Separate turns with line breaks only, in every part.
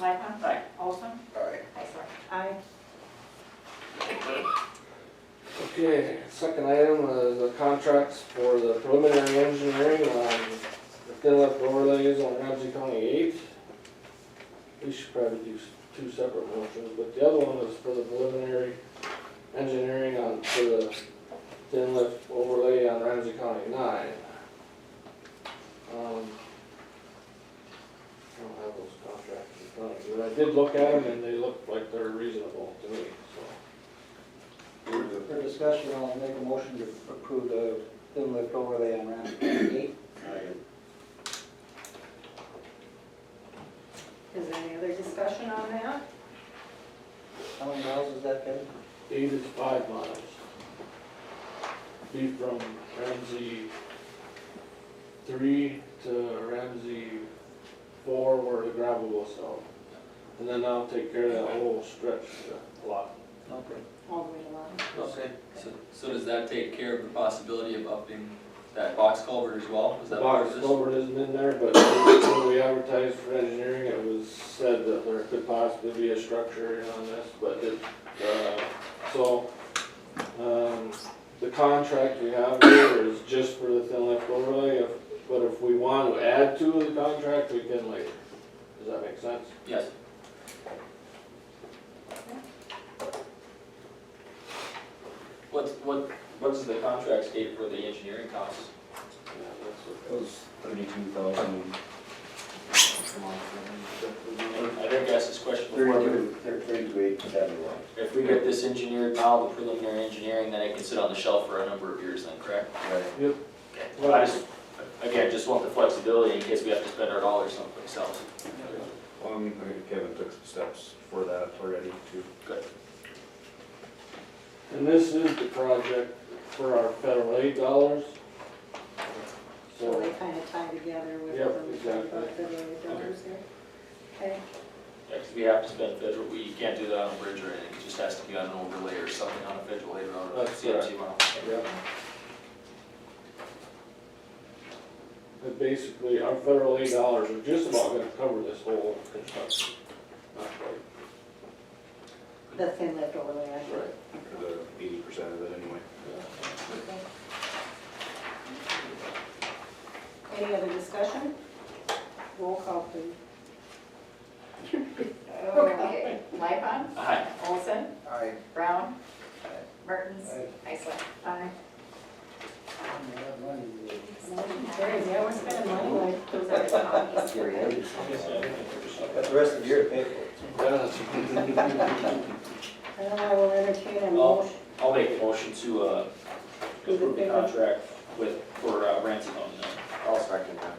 Lightfoot.
Aye.
Olson.
Aye.
Heisler.
Aye.
Okay, second item is the contracts for the preliminary engineering on the fill-up overlays on Ramsey County eight. We should probably do s- two separate motions, but the other one is for the preliminary engineering on, for the thin lift overlay on Ramsey County nine. Um, I don't have those contracts in front of me, but I did look at them and they look like they're reasonable to me, so.
For discussion, I'll make a motion to approve the thin lift overlay on Ramsey County eight.
Is there any other discussion on that?
How many miles is that, Kevin?
Eight is five miles. Be from Ramsey three to Ramsey four where the gravel goes out. And then I'll take care of that whole stretch of the lot.
Okay.
All the way along.
Okay.
So, so does that take care of the possibility of upping that box culvert as well? Was
The
that part
box
of this?
culvert isn't in there, but when we advertised for engineering, it was said that there could possibly be a structure on this, but it, uh, so, um, the contract we have here is just for the thin lift overlay, if- but if we want to add to the contract, we can later. Does that make sense?
Yes. What's, what, what does the contract state for the engineering costs?
Yeah,
It was thirty-two thousand.
I think I asked this question before. but
Thirty-two, thirty-two eight seventy-one.
If we get this engineered now, the preliminary engineering, then it can sit on the shelf for a number of years then, correct?
Right.
Okay. I just, again, just want the flexibility in case we have to spend our dollars someplace else.
Um, I think Kevin took some steps for that already too.
that's- And this is the project for our federal aid dollars.
So
So,
they kind of tie together with
Yep,
them,
exactly.
about the other dollars there. Okay,
Yeah, 'cause we have to spend federal, we can't do that on a bridge or anything, it just has to be on an overlay or something on a federal aid road. or
Oh, That's correct.
CMT model.
yeah. But basically, our federal aid dollars are just about gonna cover this whole construction. Not quite.
the thin lift overlay, I think.
Right.
For the eighty percent of it anyway.
Any other discussion? Roll call, please. Oh,
Okay. Lightfoot.
Aye.
Olson.
Aye.
Brown. Mertens.
Aye.
Heisler.
Aye. Motion carries.
Carried.
Yeah, we're spending money like those other counties.
Got the rest of the year to pay for it.
And I will entertain a
All-
motion.
I'll make a motion to, uh,
Do the
approve the
thing.
contract with, for uh, Ramsey County. Nine.
I'll second that.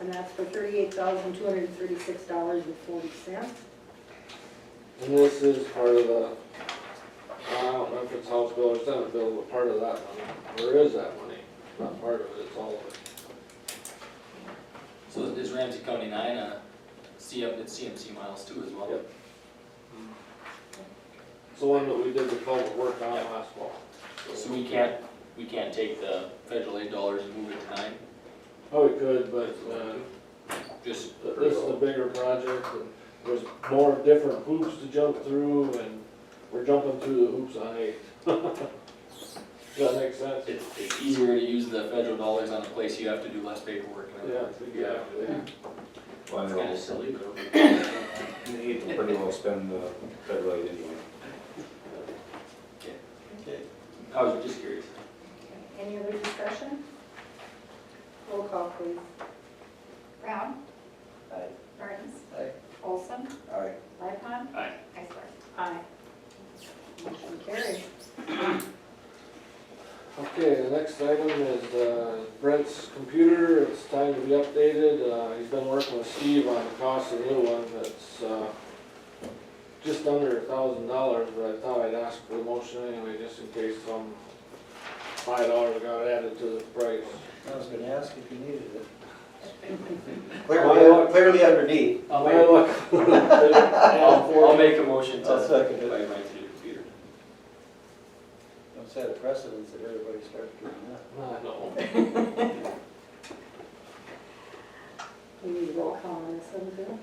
And that's for thirty-eight thousand, two hundred and thirty-six dollars and forty cents.
And this is part of the, I don't know if it's House Bill or Senate Bill, but part of that money. Where is that money? Not part of it, it's all of it.
So is Ramsey County nine, uh, CM, it's CMC miles too as well?
Yep. It's the one that we did the culvert work on last fall.
So we can't, we can't take the federal aid dollars and move it to nine,
Oh, we could, but, uh,
just,
But This is a bigger project, and there's more different hoops to jump through, and we're jumping through the hoops on eight. Does that make sense?
it's, it's easier to use the federal dollars on a place you have to do less paperwork and
Yeah,
everything.
exactly.
Well, I
It's kinda
know,
silly, but. okay.
you can pretty well spend the federal aid anyway.
I was just curious.
Any other discussion? Roll call, please.
Brown.
Aye.
Mertens.
Aye.
Olson.
Aye.
Lightfoot.
Aye.
Heisler.
Aye. Motion carries.
Okay, the next item is uh, Brent's computer, it's time to be updated, Uh, he's been working with Steve on the cost of the new one, that's uh, just under a thousand dollars, but I thought I'd ask for the motion anyway, just in case some five dollars got added to the price.
I was gonna ask if you needed it.
Well,
Clearly, clearly underneath.
I'll make,
Well,
I'll, I'll make a motion
I'll
to
second it.
buy mine through the computer.
Don't set a precedence that everybody starts doing that.
I know.
We need roll call on this one, too.